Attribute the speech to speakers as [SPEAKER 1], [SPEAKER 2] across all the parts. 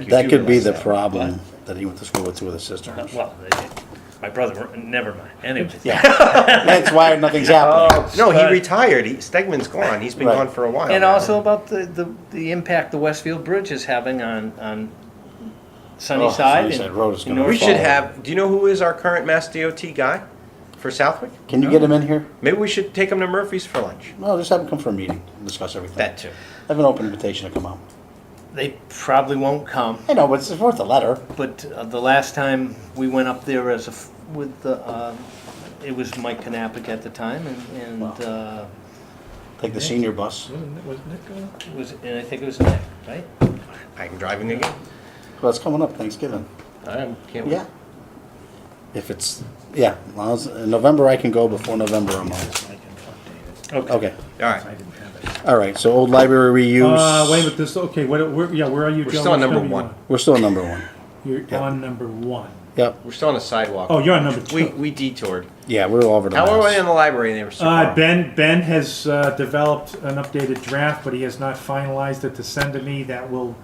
[SPEAKER 1] you
[SPEAKER 2] That
[SPEAKER 1] do
[SPEAKER 2] could be
[SPEAKER 1] realize
[SPEAKER 2] the
[SPEAKER 1] that.
[SPEAKER 2] problem, that he went to school with two of the
[SPEAKER 3] Uh,
[SPEAKER 2] sisters.
[SPEAKER 3] Well, my brother, never mind, anyway.
[SPEAKER 2] Yeah, that's why
[SPEAKER 1] Oh.
[SPEAKER 2] nothing's happening.
[SPEAKER 1] No, he
[SPEAKER 3] But-
[SPEAKER 1] retired. He, Stegman's gone. He's been
[SPEAKER 2] Right.
[SPEAKER 1] gone for a while.
[SPEAKER 3] And
[SPEAKER 1] now.
[SPEAKER 3] also about the, the, the impact the Westfield Bridge is having on, on Sunnyside.
[SPEAKER 2] Sunnyside
[SPEAKER 3] and
[SPEAKER 2] Oh, Road is gonna
[SPEAKER 1] we
[SPEAKER 3] Norfolk.
[SPEAKER 1] should have. Do you know who is our current Mass DOT guy for Southwick?
[SPEAKER 2] Can you get him in here?
[SPEAKER 1] Maybe we should take him to Murphy's for lunch.
[SPEAKER 2] No, just have him come for a meeting, and discuss everything.
[SPEAKER 1] That too.
[SPEAKER 2] Have an open invitation to come out.
[SPEAKER 3] They probably won't come,
[SPEAKER 2] I know, but it's worth a letter.
[SPEAKER 3] but uh, the last time we went up there as a, f- with the, uh, it was Mike Knappich at the time and, and,
[SPEAKER 2] Wow.
[SPEAKER 3] uh,
[SPEAKER 2] Take the senior bus.
[SPEAKER 4] Wasn't it- wasn't it going?
[SPEAKER 3] it was, and I think it was Nick, right?
[SPEAKER 1] I'm driving again.
[SPEAKER 2] Well, it's coming up Thanksgiving.
[SPEAKER 1] I am- can't wait.
[SPEAKER 2] Yeah. If it's, yeah, as long as- in November I can go before November I'm out.
[SPEAKER 4] I can update it.
[SPEAKER 2] Okay.
[SPEAKER 1] All
[SPEAKER 4] I
[SPEAKER 1] right.
[SPEAKER 4] didn't have it.
[SPEAKER 2] All right, so old library reuse.
[SPEAKER 4] Uh, wait a minute, this, okay, what, where, yeah, where are you?
[SPEAKER 1] We're
[SPEAKER 4] Joe?
[SPEAKER 1] still on
[SPEAKER 4] Which
[SPEAKER 1] number
[SPEAKER 4] you
[SPEAKER 1] one.
[SPEAKER 4] on?
[SPEAKER 2] We're still number one.
[SPEAKER 4] You're on number one.
[SPEAKER 2] Yep.
[SPEAKER 1] We're still on the sidewalk.
[SPEAKER 4] Oh, you're on number
[SPEAKER 1] we
[SPEAKER 4] two.
[SPEAKER 1] we detoured.
[SPEAKER 2] Yeah, we're all over the
[SPEAKER 1] How are we in
[SPEAKER 2] mouse.
[SPEAKER 1] the library? They were so
[SPEAKER 4] Uh,
[SPEAKER 1] far.
[SPEAKER 4] Ben, Ben has, uh, developed an updated draft, but he has not finalized it to send to me that will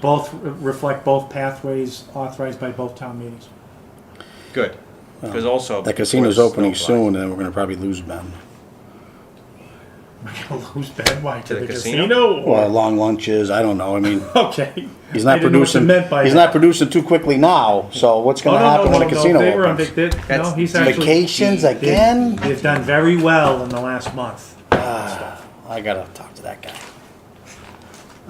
[SPEAKER 4] both, re- reflect both pathways authorized by both town meetings.
[SPEAKER 1] Good. Because also
[SPEAKER 2] That
[SPEAKER 1] before
[SPEAKER 2] casino's
[SPEAKER 1] the
[SPEAKER 2] opening
[SPEAKER 1] snow flies.
[SPEAKER 2] soon, and we're gonna probably lose Ben.
[SPEAKER 4] Who's Ben? Why, to
[SPEAKER 1] the
[SPEAKER 4] the
[SPEAKER 1] casino?
[SPEAKER 4] casino?
[SPEAKER 2] Well, long lunches, I don't know, I mean,
[SPEAKER 4] Okay.
[SPEAKER 2] he's
[SPEAKER 4] I
[SPEAKER 2] not
[SPEAKER 4] didn't know what you
[SPEAKER 2] producing,
[SPEAKER 4] meant by
[SPEAKER 2] he's
[SPEAKER 4] that.
[SPEAKER 2] not producing too quickly now, so what's
[SPEAKER 4] Oh,
[SPEAKER 2] gonna happen when the casino
[SPEAKER 4] they were on
[SPEAKER 2] opens?
[SPEAKER 4] vac- they- No,
[SPEAKER 1] That's
[SPEAKER 4] he's actually.
[SPEAKER 2] Vacations
[SPEAKER 4] they-
[SPEAKER 2] again?
[SPEAKER 4] They've done very well in the last month.
[SPEAKER 2] Ah, I gotta talk to that guy.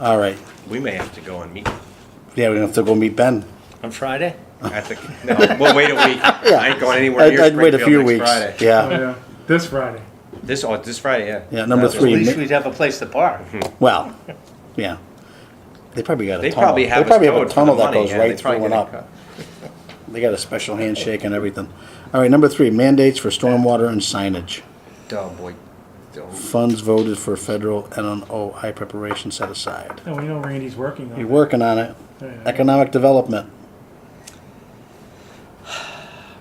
[SPEAKER 2] All right,
[SPEAKER 1] We may have to go and meet
[SPEAKER 2] yeah, we're gonna have to go meet Ben.
[SPEAKER 3] On Friday?
[SPEAKER 1] at the. No, we'll wait a week. I ain't going anywhere
[SPEAKER 2] I'd-
[SPEAKER 1] near
[SPEAKER 2] I'd wait a
[SPEAKER 1] Springfield
[SPEAKER 2] few
[SPEAKER 1] next
[SPEAKER 2] weeks.
[SPEAKER 1] Friday.
[SPEAKER 4] Oh,
[SPEAKER 2] Yeah,
[SPEAKER 4] yeah. This Friday.
[SPEAKER 1] This oh, this Friday, yeah.
[SPEAKER 2] Yeah, number
[SPEAKER 1] That's
[SPEAKER 3] At
[SPEAKER 2] three.
[SPEAKER 1] what-
[SPEAKER 3] least we'd have a place to park.
[SPEAKER 2] Hmm. well, yeah. They probably got a
[SPEAKER 1] They
[SPEAKER 2] tunnel,
[SPEAKER 1] probably
[SPEAKER 2] they
[SPEAKER 1] have. us
[SPEAKER 2] probably have a
[SPEAKER 1] towed for
[SPEAKER 2] tunnel
[SPEAKER 1] the
[SPEAKER 2] that
[SPEAKER 1] money,
[SPEAKER 2] goes
[SPEAKER 1] yeah, they
[SPEAKER 2] right through
[SPEAKER 1] probably
[SPEAKER 2] and
[SPEAKER 1] get
[SPEAKER 2] up.
[SPEAKER 1] it cut.
[SPEAKER 2] They got a special handshake and everything. All right, number three, mandates for stormwater and signage.
[SPEAKER 1] Oh boy. Don't-
[SPEAKER 2] Funds voted for federal NOI preparation set aside.
[SPEAKER 4] No, we know Randy's working on
[SPEAKER 2] You're
[SPEAKER 4] it.
[SPEAKER 2] working on it.
[SPEAKER 4] Yeah.
[SPEAKER 2] Economic development.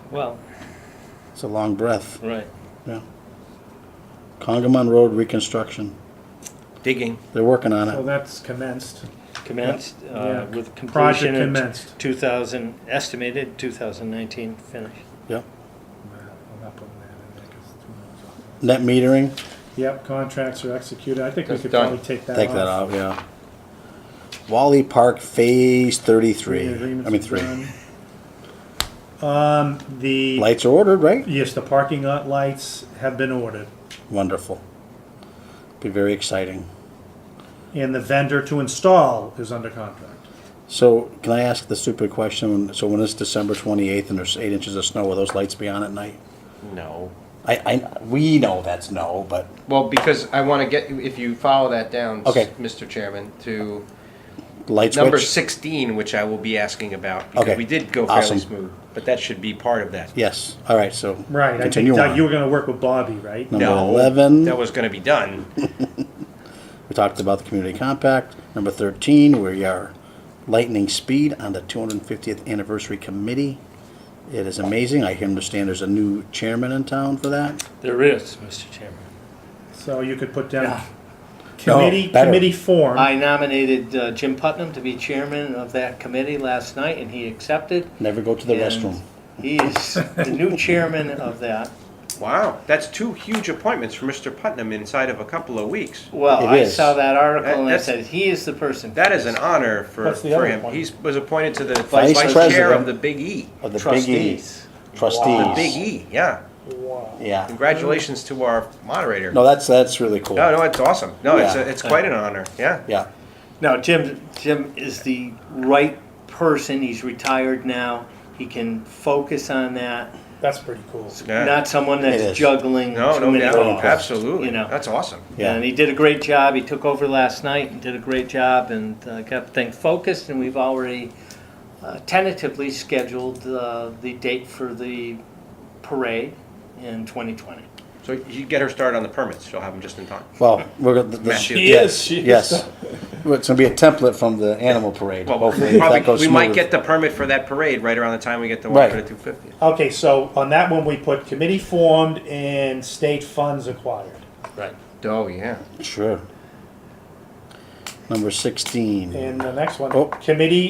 [SPEAKER 3] Well,
[SPEAKER 2] It's a long breath.
[SPEAKER 3] right.
[SPEAKER 2] Yeah. Congamon Road reconstruction.
[SPEAKER 1] Digging.
[SPEAKER 2] They're working on
[SPEAKER 4] So
[SPEAKER 2] it.
[SPEAKER 4] that's commenced.
[SPEAKER 3] Commenced,
[SPEAKER 4] Yeah.
[SPEAKER 3] uh, with
[SPEAKER 4] Project
[SPEAKER 3] completion in
[SPEAKER 4] commenced.
[SPEAKER 3] two thousand, estimated two thousand nineteen finish.
[SPEAKER 2] Yep.
[SPEAKER 4] I'm not putting that in there 'cause it's too
[SPEAKER 2] Net
[SPEAKER 4] much.
[SPEAKER 2] metering.
[SPEAKER 4] Yep, contracts are executed. I think we
[SPEAKER 1] That's
[SPEAKER 4] could
[SPEAKER 1] done.
[SPEAKER 4] probably take that off.
[SPEAKER 2] Take that out. Yeah. Wally Park Phase 33.
[SPEAKER 4] The
[SPEAKER 2] I
[SPEAKER 4] agreements
[SPEAKER 2] mean
[SPEAKER 4] are
[SPEAKER 2] three.
[SPEAKER 4] done. Um, the,
[SPEAKER 2] Lights are ordered, right?
[SPEAKER 4] yes, the parking lot lights have been ordered.
[SPEAKER 2] Wonderful. Be very exciting.
[SPEAKER 4] And the vendor to install is under contract.
[SPEAKER 2] So, can I ask the stupid question? So, when it's December 28th and there's eight inches of snow, will those lights be on at night?
[SPEAKER 1] No.
[SPEAKER 2] I, I we know that's no, but
[SPEAKER 1] Well, because I want to get if you follow that down, s-
[SPEAKER 2] Okay.
[SPEAKER 1] Mr. Chairman, to
[SPEAKER 2] light switch.
[SPEAKER 1] number sixteen, which I will be asking about because
[SPEAKER 2] Okay.
[SPEAKER 1] we did go fairly
[SPEAKER 2] Awesome.
[SPEAKER 1] smooth, but that should be part of that.
[SPEAKER 2] Yes. All right. So
[SPEAKER 4] Right, I
[SPEAKER 2] Continue
[SPEAKER 4] think Doug,
[SPEAKER 2] on.
[SPEAKER 4] you were gonna work with Bobby, right?
[SPEAKER 2] Number
[SPEAKER 1] no,
[SPEAKER 2] eleven.
[SPEAKER 1] that was going to be done.
[SPEAKER 2] we talked about the community compact. Number thirteen, we are lightning speed on the 250th anniversary committee. It is amazing. I understand there's a new chairman in town for that.
[SPEAKER 3] There is, Mr. Chairman.
[SPEAKER 4] So you could put down
[SPEAKER 3] Yeah.
[SPEAKER 4] committee,
[SPEAKER 2] No, better.
[SPEAKER 4] committee form.
[SPEAKER 3] I nominated uh, Jim Putnam to be chairman of that committee last night, and he accepted.
[SPEAKER 2] Never go to the
[SPEAKER 3] And
[SPEAKER 2] restroom.
[SPEAKER 3] He is the new chairman of that.
[SPEAKER 1] Wow, that's two huge appointments for Mr. Putnam inside of a couple of weeks.
[SPEAKER 3] Well,
[SPEAKER 2] It
[SPEAKER 3] I
[SPEAKER 2] is.
[SPEAKER 3] saw that
[SPEAKER 1] That-
[SPEAKER 3] article and I
[SPEAKER 1] that's-
[SPEAKER 3] said, he is the person.
[SPEAKER 1] That is an honor for,
[SPEAKER 4] What's the
[SPEAKER 1] for
[SPEAKER 4] other
[SPEAKER 1] him.
[SPEAKER 4] one?
[SPEAKER 1] He was appointed to the
[SPEAKER 2] Vice
[SPEAKER 1] vice, chair
[SPEAKER 2] president.
[SPEAKER 1] of the Big E.
[SPEAKER 2] Of the
[SPEAKER 3] Trustees.
[SPEAKER 2] Big E. Trustees.
[SPEAKER 1] The Big E, yeah.
[SPEAKER 2] Yeah.
[SPEAKER 1] Congratulations to our moderator.
[SPEAKER 2] No, that's that's really cool.
[SPEAKER 1] No, no, it's awesome. No, it's
[SPEAKER 2] Yeah.
[SPEAKER 1] a, it's quite an honor. Yeah.
[SPEAKER 2] Yeah.
[SPEAKER 3] Now, Jim, Jim is the right person. He's retired now. He can focus on that.
[SPEAKER 4] That's pretty cool.
[SPEAKER 1] Yeah.
[SPEAKER 3] Not someone
[SPEAKER 2] It
[SPEAKER 3] that's
[SPEAKER 2] is.
[SPEAKER 3] juggling
[SPEAKER 1] No,
[SPEAKER 3] too
[SPEAKER 1] no,
[SPEAKER 3] many
[SPEAKER 1] no,
[SPEAKER 3] roles.
[SPEAKER 1] absolutely.
[SPEAKER 3] You know.
[SPEAKER 1] That's awesome.
[SPEAKER 2] Yeah.
[SPEAKER 3] And he did a great job. He took over last night and did a great job and uh, got things focused. And we've already uh, tentatively scheduled uh, the date for the parade in 2020.
[SPEAKER 1] So you get her started on the permits. She'll have them just in time.
[SPEAKER 2] Well, we're gonna. the- the-
[SPEAKER 1] Matthew. She
[SPEAKER 2] yes,
[SPEAKER 4] is, she is.
[SPEAKER 2] Yes. Well, it's gonna be a template from the animal parade.
[SPEAKER 1] Well,
[SPEAKER 2] Hopefully,
[SPEAKER 1] we
[SPEAKER 2] if that goes
[SPEAKER 1] probably, we might
[SPEAKER 2] smooth.
[SPEAKER 1] get the permit for that parade right around the time we get the
[SPEAKER 2] Right.
[SPEAKER 1] one for the two fifty.
[SPEAKER 4] Okay, so on that one, we put committee formed and state funds acquired.
[SPEAKER 3] Right.
[SPEAKER 1] Oh, yeah.
[SPEAKER 2] Sure. Number sixteen.
[SPEAKER 4] And the next one,
[SPEAKER 2] Oh.
[SPEAKER 4] committee